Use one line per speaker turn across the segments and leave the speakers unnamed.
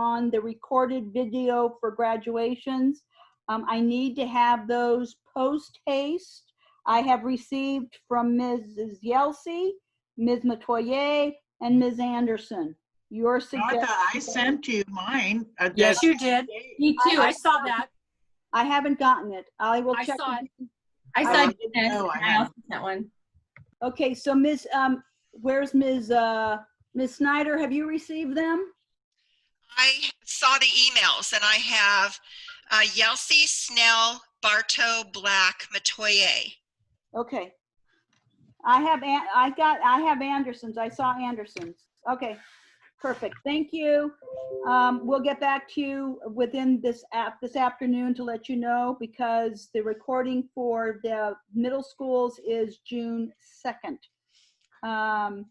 on the recorded video for graduations. Um, I need to have those post haste. I have received from Mrs. Yelsey, Ms. Matoyer, and Ms. Anderson. Your
Martha,
suggestion.
I sent you mine. uh, that-
Yes, you did.
Me too. I saw that.
I haven't gotten it. I will
I
check.
saw
again.
I
I
saw
didn't
Dennis.
know I
and I
had-
also sent one.
Okay, so Ms., um, where's Ms., uh, Ms. Snyder? Have you received them?
I saw the emails and I have uh, Yelsey, Snell, Bartow, Black, Matoye.
Okay. I have, An- I got, I have Anderson's. I saw Anderson's. Okay, perfect. Thank you. Um, we'll get back to you within this app, this afternoon to let you know because the recording for the middle schools is June 2nd. Um,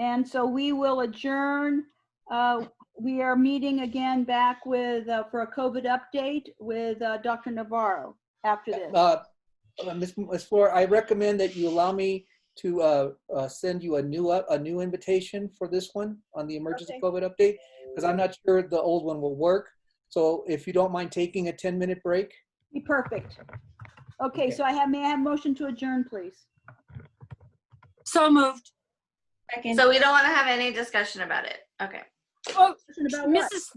and so we will adjourn. Uh, we are meeting again back with, uh, for a COVID update with, uh, Dr. Navarro after this.
Uh, uh, Ms. Ms. Flor, I recommend that you allow me to uh, uh, send you a new, uh, a new invitation for this one on the emergency
Okay.
COVID update, because I'm not sure the old one will work. So if you don't mind taking a 10-minute break,
Be perfect. Okay,
Okay.
so I have, may I have motion to adjourn, please?
So moved.
Second. So we don't want to have any discussion about it. Okay.
Oh,
Motion about what?
Mrs.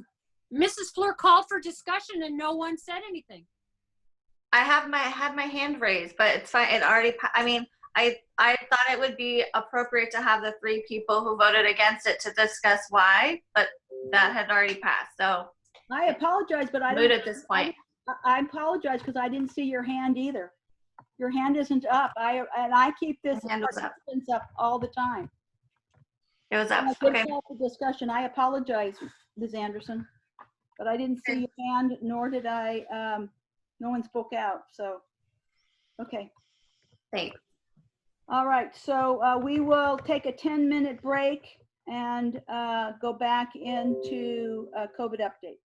Mrs. Fleur called for discussion and no one said anything.
I have my I had my hand raised, but it's fine. It already. pa- I mean, I I thought it would be appropriate to have the three people who voted against it to discuss why, but that had already passed. So
I apologize, but I
moot
don't,
at this point.
I- I apologize because I didn't see your hand either. Your hand isn't up. I, and I keep this
My hand was up.
participants up all the time.
It was
I
up.
did
Okay.
call for Discussion. I apologize, Ms. Anderson, but I didn't see your hand, nor did I, um, no one spoke out, so. Okay.
Thanks.
All right, so uh, we will take a 10-minute break and uh, go back into uh, COVID update.